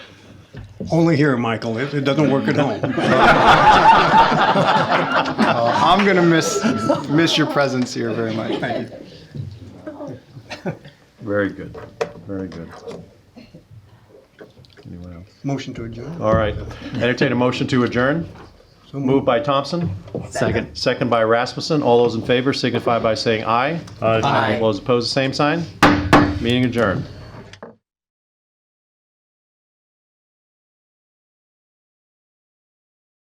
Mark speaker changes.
Speaker 1: Only here, Michael. It, it doesn't work at home.
Speaker 2: Uh, I'm gonna miss miss your presence here very much. Thank you.
Speaker 3: Very good, very good. Anyone else?
Speaker 1: Motion to adjourn.
Speaker 3: All right, entertain a motion to adjourn.
Speaker 1: So
Speaker 3: Moved by Thompson. Second. Second by Rasmussen. All those in favor signify by saying aye. Aye. All those opposed, the same sign. Meeting adjourned.